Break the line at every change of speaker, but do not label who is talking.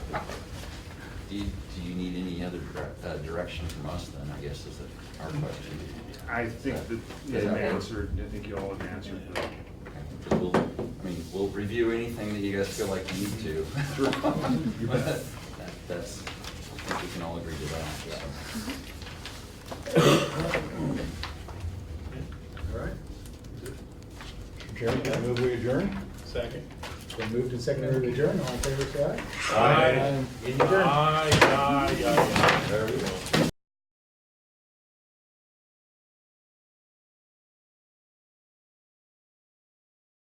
do you, do you need any other dire- uh, direction from us then, I guess is the- our question?
I think that
Is
they've
that-
answered, I think you all have answered that.
Okay. So We'll, I mean, we'll review anything that you guys feel like you need to.
Sure. You bet.
That- That's, I think we can all agree to that, so.
All right.
Mr. Chairman, I move we adjourn.
Second.
So moved and seconded to adjourn, all in favor, say aye.
Aye.
Aye. Meeting adjourned.
Aye, aye, aye, aye.
There we go.